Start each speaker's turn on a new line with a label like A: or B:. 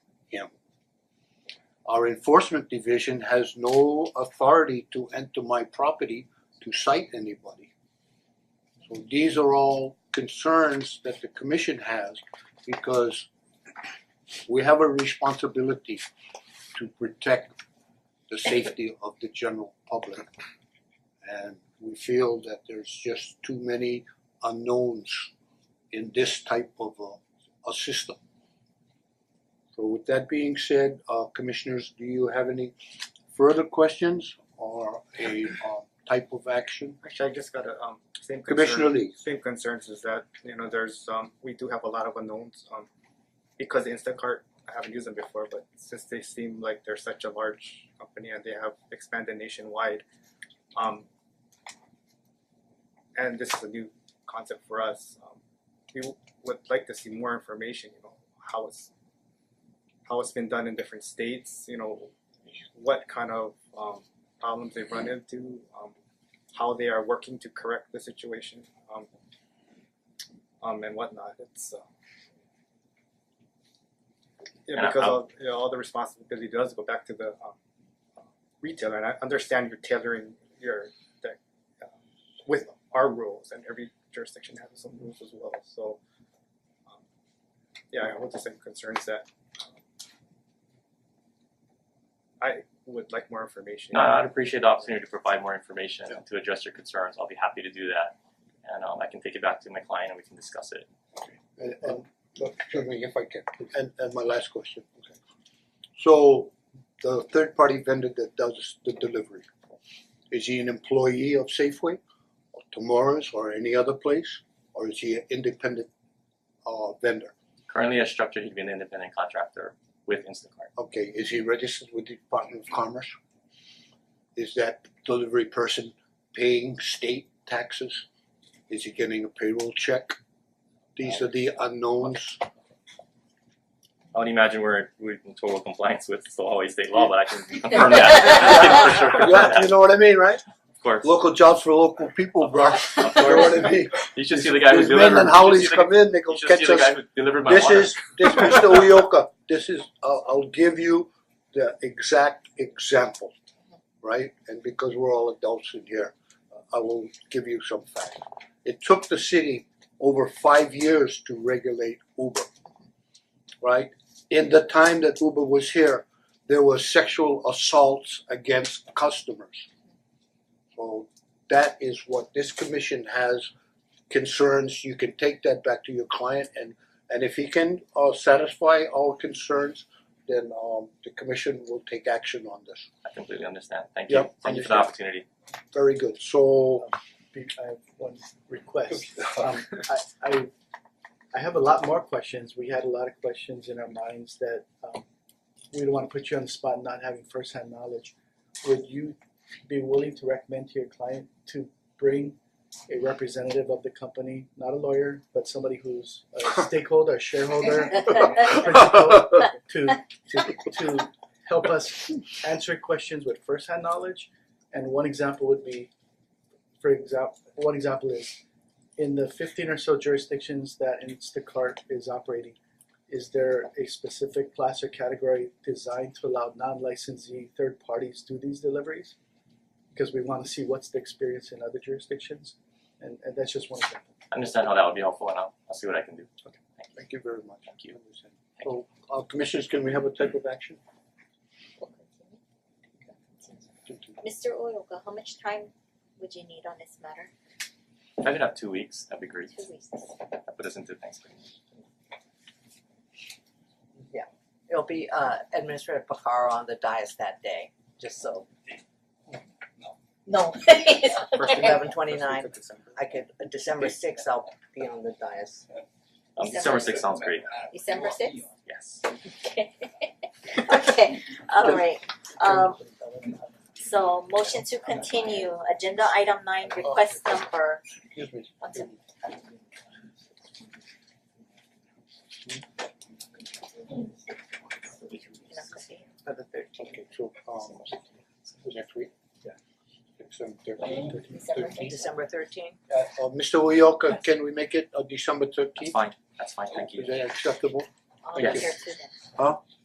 A: him. Our enforcement division has no authority to enter my property to cite anybody. So these are all concerns that the commission has because we have a responsibility to protect the safety of the general public. And we feel that there's just too many unknowns in this type of a, a system. So with that being said, uh commissioners, do you have any further questions or a uh type of action?
B: Actually, I just got a um same concern.
A: Commissioner Lee,
B: Same concerns is that, you know, there's um, we do have a lot of unknowns, um, because Instacart, I haven't used them before, but since they seem like they're such a large company and they have expanded nationwide, um, and this is a new concept for us, um, we w- would like to see more information, you know, how it's how it's been done in different states, you know, what kind of um problems they've run into, um, how they are working to correct the situation, um, um, and whatnot. It's uh, yeah,
C: And I-
B: because
C: I-
B: all, you know, all the responsibility does go back to the um, uh, retailer, and I understand you're tailoring your deck uh, with our rules, and every jurisdiction has its own rules as well. So, um, yeah, I hold the same concerns that um, I would like more information.
C: No, Uh, I'd appreciate the opportunity to provide more information
A: Yeah.
C: to address your concerns. I'll be happy to do that. And um I can take it back to my client and we can discuss it.
A: and and look, excuse me if I can, and and my last question, okay. So the third party vendor that does the delivery, is he an employee of Safeway or Tomorrow's or any other place? Or is he an independent uh vendor?
C: Currently as structured, he'd be an independent contractor with Instacart.
A: Okay, is he registered with the Department of Commerce? Is that delivery person paying state taxes? Is he getting a payroll check? These are the unknowns.
C: I would imagine we're we're in total compliance with still always state law, but I can confirm that. I can for sure confirm
A: Yeah, you
C: that,
A: know what I mean, right?
C: of course.
A: Local jobs for local people, bro.
C: Of
A: You know
C: course.
A: what I mean?
C: You should see the guy who
A: These men
C: delivered
A: and
C: you should
A: howlies
C: see the,
A: come in, they go
C: you should
A: catch
C: see the guy
A: us.
C: who delivered my
A: This
C: water.
A: is, this Mr. Uyoka, this is, I'll I'll give you the exact example, right? And because we're all adults in here, I will give you some facts. It took the city over five years to regulate Uber, right? In the time that Uber was here, there were sexual assaults against customers. So that is what this commission has concerns, you can take that back to your client and and if he can uh satisfy our concerns, then um the commission will take action on this.
C: I completely understand. Thank
A: Yeah,
C: you. Thank you for the
A: understand.
C: opportunity.
A: Very good, so
D: Be- I have one request. Um I I I have a lot more questions. We had a lot of questions in our minds that um we don't wanna put you on the spot not having first hand knowledge. Would you be willing to recommend to your client to bring a representative of the company, not a lawyer, but somebody who's a stakeholder, a shareholder, to to to help us answer questions with first hand knowledge. And one example would be, for example, one example is in the fifteen or so jurisdictions that Instacart is operating, is there a specific class or category designed to allow non-licensee third parties do these deliveries? Because we wanna see what's the experience in other jurisdictions, and and that's just one example.
C: I understand how that would be helpful and I'll I'll see what I can do.
A: thank you very much.
C: Thank you.
A: So uh commissioners, can we have a type of action?
E: Mister Uyoka, how much time would you need on this matter?
C: If I could have two weeks, that'd be great.
E: Two weeks.
C: That put us into Thanksgiving.
F: It'll be uh Administrator Pacaro on the dais that day, just so. No,
B: First thing-
F: eleven twenty-nine,
B: First week
F: I could, uh, December sixth, I'll be on the dais.
C: Um, December sixth sounds great.
E: December sixth?
C: Yes.
E: Okay, alright, um so motion to continue, agenda item nine, request number,
A: Excuse me.
E: one second.
F: For the thirteenth.
A: Okay, so um next week?
D: Yeah.
A: Six, seven, thirteen.
E: December
A: Thirteen.
F: December thirteenth?
A: Uh uh Mr. Uyoka, can we make it uh December
C: That's
A: thirteenth?
C: fine. That's fine. Thank you.
A: Is that acceptable?
E: I'll be
A: Yes.
E: here too then.
A: Huh?